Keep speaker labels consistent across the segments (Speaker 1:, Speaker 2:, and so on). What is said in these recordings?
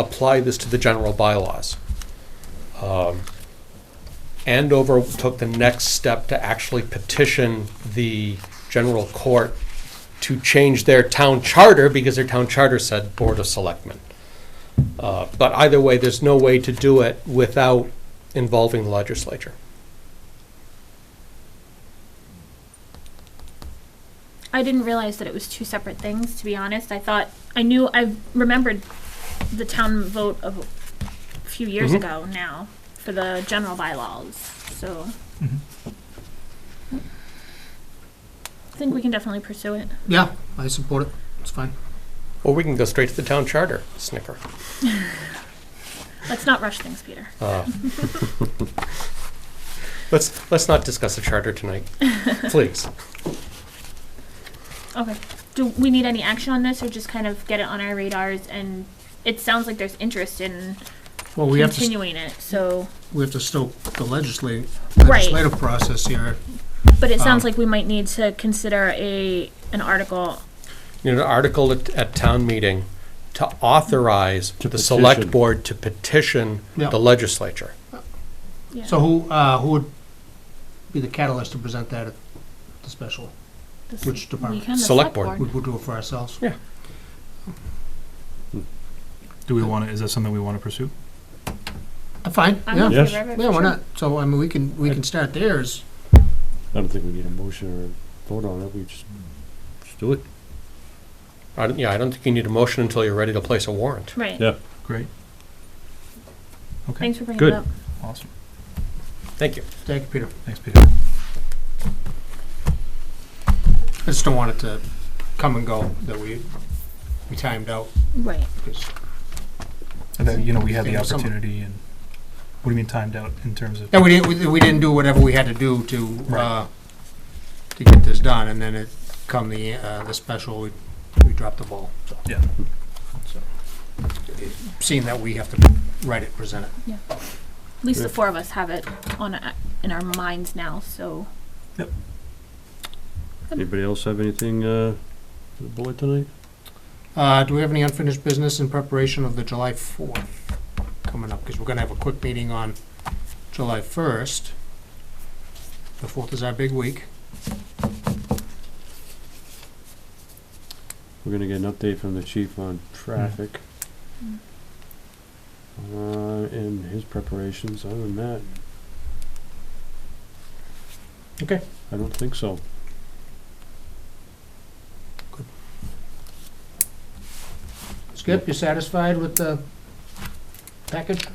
Speaker 1: apply this to the general bylaws. Um, Andover took the next step to actually petition the general court to change their town charter because their town charter said Board of Selectmen. Uh, But either way, there's no way to do it without involving the legislature.
Speaker 2: I didn't realize that it was two separate things, to be honest. I thought, I knew, I remembered the town vote of a few years
Speaker 3: Mm-hmm.
Speaker 1: Mhm.
Speaker 2: ago now for the general bylaws, so.
Speaker 3: Mm-hmm.
Speaker 2: I think we can definitely pursue it.
Speaker 3: Yeah, I support it. It's fine.
Speaker 1: Or we can go straight to the town charter, snicker.
Speaker 2: Let's not rush things, Peter.
Speaker 1: Uh, Let's, let's not discuss the charter tonight, please.
Speaker 2: Okay. Do we need any action on this or just kind of get it on our radars and it sounds like there's interest in
Speaker 3: Well, we have to, st-
Speaker 2: continuing it, so,
Speaker 3: we have to stoke the legislative,
Speaker 2: Right.
Speaker 3: legislative process here.
Speaker 2: but it sounds
Speaker 3: Um,
Speaker 2: like we might need to consider a, an article
Speaker 1: You know, an article at, at town meeting to authorize the select
Speaker 4: petition.
Speaker 1: board to petition
Speaker 3: Yeah.
Speaker 1: the legislature.
Speaker 2: Yeah.
Speaker 3: So who, uh, who would be the catalyst to present that at the special?
Speaker 2: This
Speaker 3: Which department?
Speaker 2: weekend, the
Speaker 1: Select board.
Speaker 3: Would we do it for ourselves?
Speaker 1: Yeah.
Speaker 5: Do we want to, is that something we want to pursue?
Speaker 3: Uh, Fine,
Speaker 2: I'm in
Speaker 3: yeah.
Speaker 4: Yes.
Speaker 2: favor of it,
Speaker 3: Yeah, why
Speaker 2: sure.
Speaker 3: not? So, I mean, we can, we can start there as,
Speaker 4: I don't think we need a motion or vote on it, we just. Just do it.
Speaker 1: I don't, yeah, I don't think you need a motion until you're ready to place a warrant.
Speaker 2: Right.
Speaker 4: Yeah.
Speaker 5: Great. Okay,
Speaker 2: Thanks for bringing
Speaker 4: Good.
Speaker 2: it up.
Speaker 5: awesome.
Speaker 1: Thank you.
Speaker 3: thank you, Peter.
Speaker 5: Thanks, Peter.
Speaker 3: I just don't want it to come and go, that we, we timed out,
Speaker 2: Right.
Speaker 3: 'cause
Speaker 5: And then, you know, we had the
Speaker 3: Thank you so much.
Speaker 5: opportunity and, what do you mean timed out in terms of?
Speaker 3: Yeah, we didn't, we- we didn't do whatever we had to do to, uh,
Speaker 5: Right.
Speaker 3: to get this done, and then it come the, uh, the special, we, we dropped the ball, so.
Speaker 5: Yeah.
Speaker 3: So, it- Seeing that we have to write it, present it.
Speaker 2: At least the four of us have it on a, in our minds now, so
Speaker 4: Anybody else have anything, uh, for the board tonight?
Speaker 3: Uh, do we have any unfinished business in preparation of the July fourth coming up? Because we're gonna have a quick meeting on July first. The fourth is our big week.
Speaker 4: We're gonna get an update from the chief on traffic.
Speaker 2: Mm.
Speaker 4: Uh, and his preparations, other than that.
Speaker 3: Okay.
Speaker 4: I don't think so.
Speaker 3: Skip, you satisfied with the package?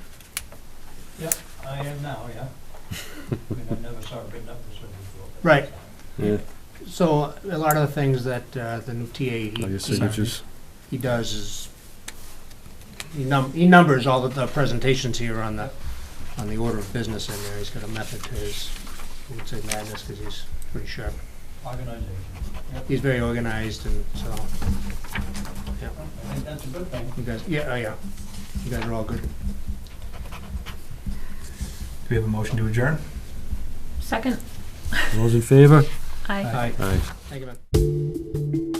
Speaker 6: I am now, yeah. I mean, I never saw it written up this way before. but-
Speaker 3: Right.
Speaker 4: Yeah,
Speaker 3: So a lot of the things that uh, the new TA he,
Speaker 4: I guess
Speaker 3: he-
Speaker 4: signatures.
Speaker 3: he does is he, num- he numbers all of the presentations here on the on the order of business in there. He's got a method to his, I would say madness because he's pretty sharp.
Speaker 6: Organization. Yep,
Speaker 3: He's very organized and so
Speaker 6: I think that's a good thing.
Speaker 3: you guys, yeah, oh yeah, you guys are all good.
Speaker 5: Do we have a motion to adjourn?
Speaker 2: second,
Speaker 4: Those in favor?
Speaker 2: I.
Speaker 3: Aye.
Speaker 4: Aye.
Speaker 3: Thank you, man.